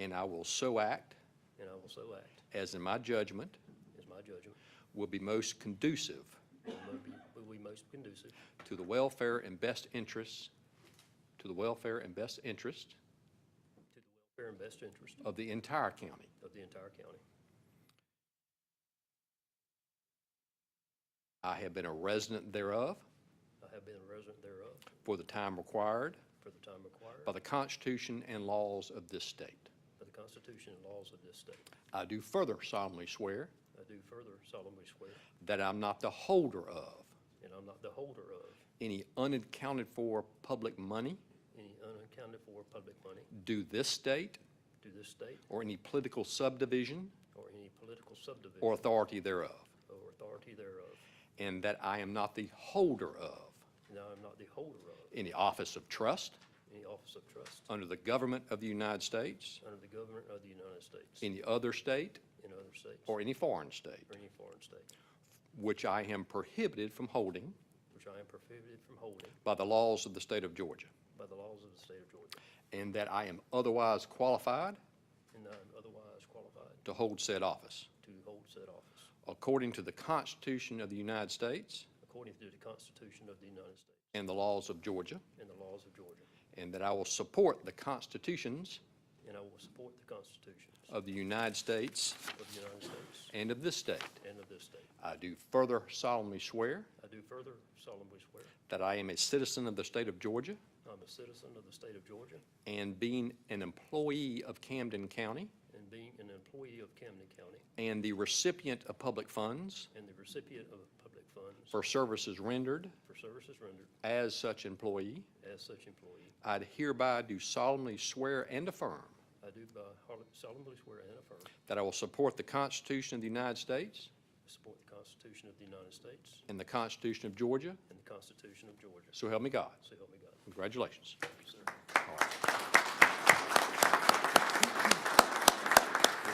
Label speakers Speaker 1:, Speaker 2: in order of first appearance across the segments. Speaker 1: and I will so act
Speaker 2: and I will so act,
Speaker 1: as in my judgment
Speaker 2: as my judgment,
Speaker 1: will be most conducive
Speaker 2: will be- will be most conducive
Speaker 1: to the welfare and best interests, to the welfare and best interest
Speaker 2: to the welfare and best interest
Speaker 1: of the entire county.
Speaker 2: of the entire county.
Speaker 1: I have been a resident thereof
Speaker 2: I have been a resident thereof
Speaker 1: for the time required
Speaker 2: for the time required
Speaker 1: by the Constitution and laws of this state.
Speaker 2: by the Constitution and laws of this state.
Speaker 1: I do further solemnly swear
Speaker 2: I do further solemnly swear,
Speaker 1: that I'm not the holder of
Speaker 2: and I'm not the holder of
Speaker 1: any unaccounted-for public money
Speaker 2: any unaccounted-for public money
Speaker 1: due this state
Speaker 2: to this state
Speaker 1: or any political subdivision
Speaker 2: or any political subdivision
Speaker 1: or authority thereof,
Speaker 2: or authority thereof,
Speaker 1: and that I am not the holder of
Speaker 2: and I am not the holder of
Speaker 1: any office of trust
Speaker 2: any office of trust
Speaker 1: under the government of the United States,
Speaker 2: under the government of the United States,
Speaker 1: any other state,
Speaker 2: in other states, or
Speaker 1: or any foreign state,
Speaker 2: any foreign state,
Speaker 1: which I am prohibited from holding
Speaker 2: which I am prohibited from holding
Speaker 1: by the laws of the state of Georgia,
Speaker 2: by the laws of the state of Georgia,
Speaker 1: and that I am otherwise qualified
Speaker 2: and I am otherwise qualified
Speaker 1: to hold said office,
Speaker 2: to hold said office
Speaker 1: according to the Constitution of the United States
Speaker 2: according to the Constitution of the United States
Speaker 1: and the laws of Georgia,
Speaker 2: and the laws of Georgia,
Speaker 1: and that I will support the constitutions
Speaker 2: and I will support the constitutions
Speaker 1: of the United States
Speaker 2: of the United States
Speaker 1: and of this state.
Speaker 2: and of this state.
Speaker 1: I do further solemnly swear
Speaker 2: I do further solemnly swear,
Speaker 1: that I am a citizen of the state of Georgia,
Speaker 2: I'm a citizen of the state of Georgia,
Speaker 1: and being an employee of Camden County
Speaker 2: and being an employee of Camden County,
Speaker 1: and the recipient of public funds
Speaker 2: and the recipient of public funds
Speaker 1: for services rendered
Speaker 2: for services rendered
Speaker 1: as such employee,
Speaker 2: as such employee,
Speaker 1: I hereby do solemnly swear and affirm
Speaker 2: I do by hol- solemnly swear and affirm,
Speaker 1: that I will support the Constitution of the United States
Speaker 2: support the Constitution of the United States
Speaker 1: and the Constitution of Georgia,
Speaker 2: and the Constitution of Georgia.
Speaker 1: so help me God.
Speaker 2: So help me God.
Speaker 1: Congratulations.
Speaker 2: Sir.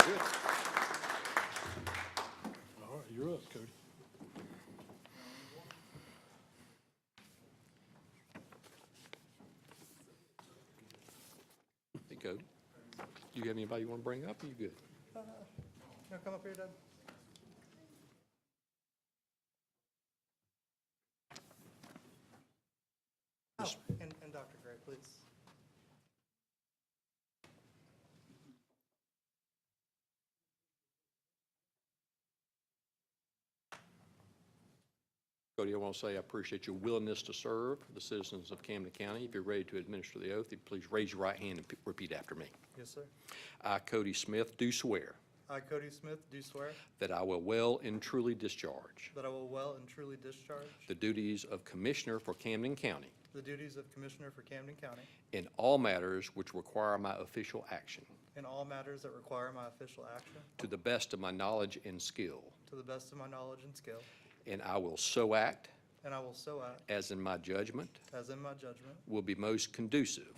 Speaker 1: You're good.
Speaker 3: All right, you're up, Cody.
Speaker 1: Hey, Cody, do you have anybody you want to bring up? You good?
Speaker 4: Now come up here, Doug. Oh, and, and Dr. Gray, please.
Speaker 1: Cody, I want to say I appreciate your willingness to serve the citizens of Camden County. If you're ready to administer the oath, then please raise your right hand and p- repeat after me.
Speaker 4: Yes, sir.
Speaker 1: I, Cody Smith, do swear
Speaker 4: I, Cody Smith, do swear
Speaker 1: that I will well and truly discharge
Speaker 4: that I will well and truly discharge
Speaker 1: the duties of Commissioner for Camden County
Speaker 4: the duties of Commissioner for Camden County
Speaker 1: in all matters which require my official action,
Speaker 4: in all matters that require my official action
Speaker 1: to the best of my knowledge and skill,
Speaker 4: to the best of my knowledge and skill,
Speaker 1: and I will so act
Speaker 4: and I will so act
Speaker 1: as in my judgment
Speaker 4: as in my judgment
Speaker 1: will be most conducive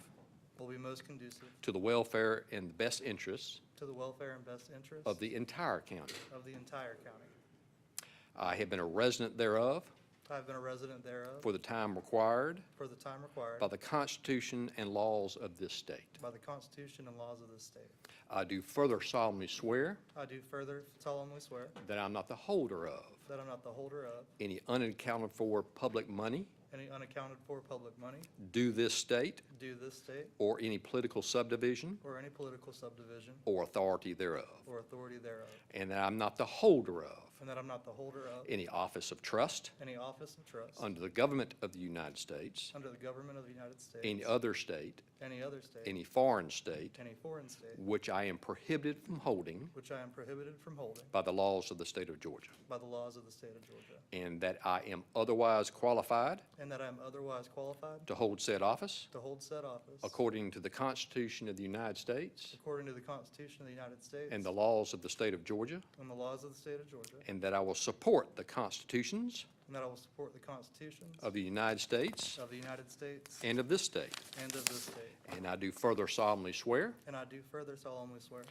Speaker 4: will be most conducive
Speaker 1: to the welfare and the best interests
Speaker 4: to the welfare and best interest
Speaker 1: of the entire county.
Speaker 4: of the entire county.
Speaker 1: I have been a resident thereof
Speaker 4: I have been a resident thereof
Speaker 1: for the time required
Speaker 4: for the time required
Speaker 1: by the Constitution and laws of this state.
Speaker 4: by the Constitution and laws of this state.
Speaker 1: I do further solemnly swear
Speaker 4: I do further solemnly swear
Speaker 1: that I'm not the holder of
Speaker 4: that I'm not the holder of
Speaker 1: any unaccounted-for public money
Speaker 4: any unaccounted-for public money
Speaker 1: due this state
Speaker 4: due this state
Speaker 1: or any political subdivision
Speaker 4: or any political subdivision
Speaker 1: or authority thereof,
Speaker 4: or authority thereof,
Speaker 1: and that I'm not the holder of
Speaker 4: and that I'm not the holder of
Speaker 1: any office of trust
Speaker 4: any office of trust
Speaker 1: under the government of the United States,
Speaker 4: under the government of the United
Speaker 1: any
Speaker 4: States,
Speaker 1: other state,
Speaker 4: any other state,
Speaker 1: any foreign state,
Speaker 4: any foreign state,
Speaker 1: which I am prohibited from holding
Speaker 4: which I am prohibited from holding
Speaker 1: by the laws of the state of Georgia,
Speaker 4: by the laws of the state of Georgia,
Speaker 1: and that I am otherwise qualified
Speaker 4: and that I am otherwise qualified
Speaker 1: to hold said office
Speaker 4: to hold said office
Speaker 1: according to the Constitution of the United States
Speaker 4: according to the Constitution of the United States
Speaker 1: and the laws of the state of Georgia,
Speaker 4: and the laws of the state of Georgia,
Speaker 1: and that I will support the constitutions
Speaker 4: and that I will support the constitutions
Speaker 1: of the United States
Speaker 4: of the United States
Speaker 1: and of this state.
Speaker 4: and of this state.
Speaker 1: And I do further solemnly swear
Speaker 4: And I do further solemnly swear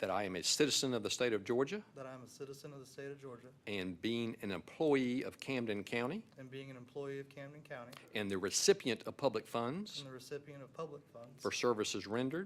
Speaker 1: that I am a citizen of the state of Georgia
Speaker 4: that I am a citizen of the state of Georgia
Speaker 1: and being an employee of Camden County
Speaker 4: and being an employee of Camden County
Speaker 1: and the recipient of public funds
Speaker 4: and the recipient of public funds
Speaker 1: for services rendered